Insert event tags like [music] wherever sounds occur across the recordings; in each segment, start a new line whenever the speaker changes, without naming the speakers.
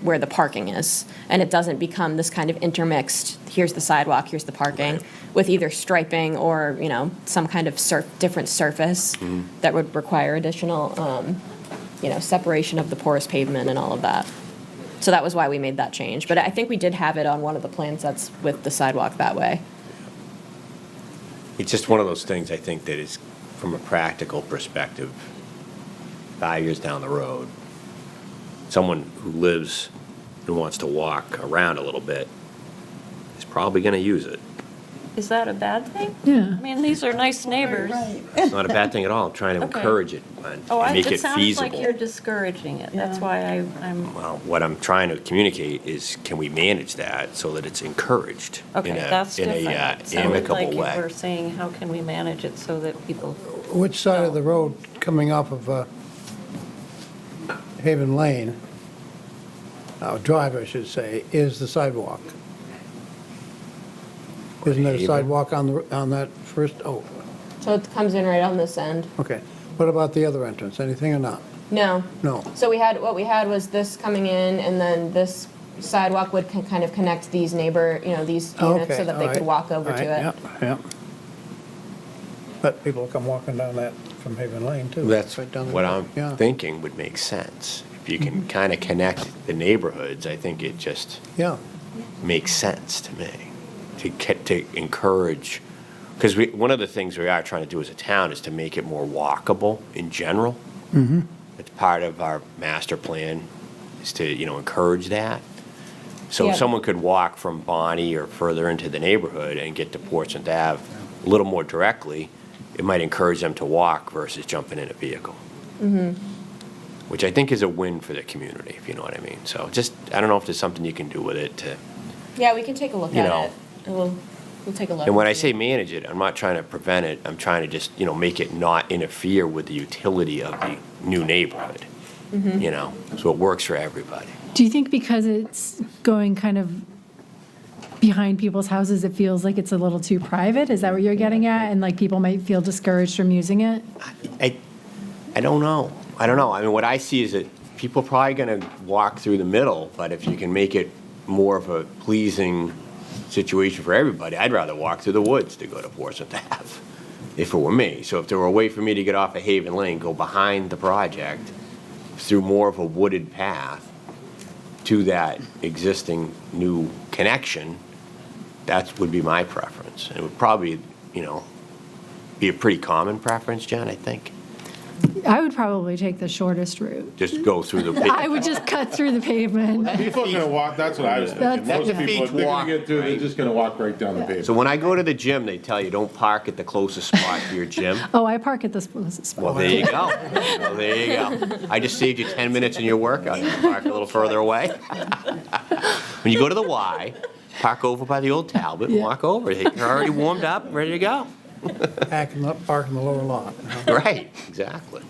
where the parking is. And it doesn't become this kind of intermixed, here's the sidewalk, here's the parking, with either striping or, you know, some kind of sur, different surface that would require additional, um, you know, separation of the porous pavement and all of that. So that was why we made that change. But I think we did have it on one of the plan sets with the sidewalk that way.
It's just one of those things, I think, that is, from a practical perspective, five years down the road, someone who lives and wants to walk around a little bit is probably going to use it.
Is that a bad thing?
Yeah.
I mean, these are nice neighbors.
It's not a bad thing at all. I'm trying to
[laughs] Okay.
encourage it and
Oh, I-
and make it
sounds like you're
feasible.
discouraging it. That's
Yeah.
why I, I'm,
Well, what I'm trying to communicate is, can we manage that so that it's encouraged
okay,
in a,
that's
in
different.
a uh,
It sounded like
amicable
you
way?
We're saying, how can we manage it so that people,
Which side of the road coming off of uh, Haven Lane, uh, Drive, I should say, is the sidewalk? Isn't there a
Haven?
sidewalk on the, on that first, oh,
So it comes in right on this end.
okay. What about the other entrance, anything or not?
No.
No.
So we had, what we had was this coming in, and then this sidewalk would con- kind of connect these neighbor, you know, these units
Okay,
so that they
all right,
could walk over
all
to
right,
it.
Yep, yep. But people come walking down that from Haven Lane, too.
That's
Right down the-
what I'm
yeah, Mm-hmm.
thinking would make sense. If you can kind of connect the neighborhoods, I think it just
Yeah,
makes sense to me to get, to encourage. Because we, one of the things we are trying to do as a town is to make it more walkable in general. It's part of our master plan is to, you know, encourage that. So
Yeah.
if someone could walk from Bonnie or further into the neighborhood and get to Portsmouth Ave a little more directly, it might encourage them to walk versus jumping in a vehicle. Which I think is a win for the community, if you know what I mean. So just, I don't know if there's something you can do with it to.
Yeah, we can take a look
You
at
know.
it. And We'll, we'll take a look.
And when I say manage it, I'm not trying to prevent it, I'm trying to just, you know, make it not interfere with the utility of the new neighborhood. You know, so it works for everybody.
Do you think because it's going kind of behind people's houses, it feels like it's a little too private? Is that what you're getting at? And like people might feel discouraged from using it?
I, I don't know, I don't know, I mean, what I see is that people are probably gonna walk through the middle, but if you can make it more of a pleasing situation for everybody, I'd rather walk through the woods to go to Portsmouth [laughs] Ave, if it were me. So if there were a way for me to get off of Haven Lane, go behind the project, through more of a wooded path to that existing new connection, that would be my preference. It would probably, you know, be a pretty common preference, John, I think.
I would probably take the shortest route.
Just go through
[laughs]
the.
I would just cut through the pavement.
People are gonna walk, that's what I was thinking.
That's-
Most
That's a
people, if
feet
they're
walk,
gonna get through, they're
right?
just gonna walk right down the pavement.
So when I go to the gym, they tell you, don't park at the closest spot to your
[laughs]
gym.
Oh, I park at this spot.
Well, there you go. Well, there you
[laughs]
go. I just saved you 10 minutes in your workout. You can park a little further
[laughs]
away. When you go to the Y, park over by the old Talbot, and
Yeah.
walk over. You're already warmed up, ready to go.
Parking up, park in the lower lot.
Uh-huh.
you know.
Right, exactly.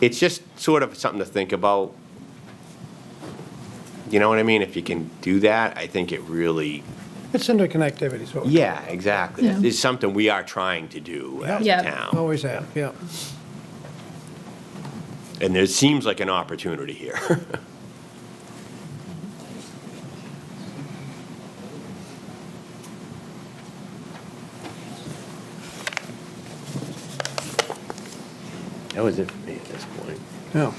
It's just sort of something to think about. You know what I mean? If you can do that, I think it really,
It's interconnectivity, so.
yeah, exactly.
Yeah.
It's something we are trying to do as a
Yeah.
town.
Always have, yeah.
And there seems like an opportunity here. [laughs] That was it for me at this point.
Yeah.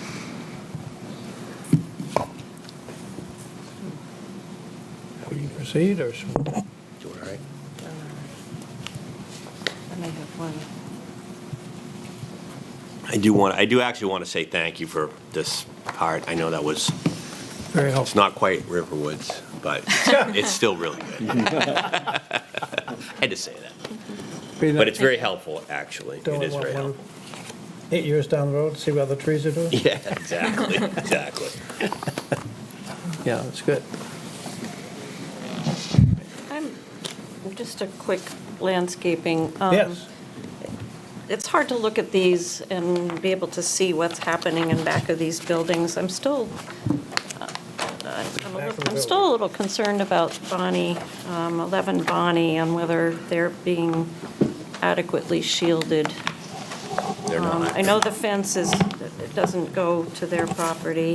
We can proceed, or should-
Do it all right?
and I have one.
I do want, I do actually want to say thank you for this part. I know that was,
very
it's
helpful.
not quite Riverwoods, [laughs] but it's still really good. [laughs] Had to say that. But it's very helpful, actually. It is very helpful. [laughs]
Eight years down the road, see what other trees are doing?
Yeah, exactly, exactly.
Yeah, that's good.
I'm, just a quick landscaping. um,
Yes,
It's hard to look at these and be able to see what's happening in back of these buildings. I'm still, uh, I'm a
Back of the
little- I'm still a little concerned about Bonnie, um, 11 Bonnie, and whether they're being adequately shielded.
They're
Um,
not.
I know the fence is, it doesn't go to their property.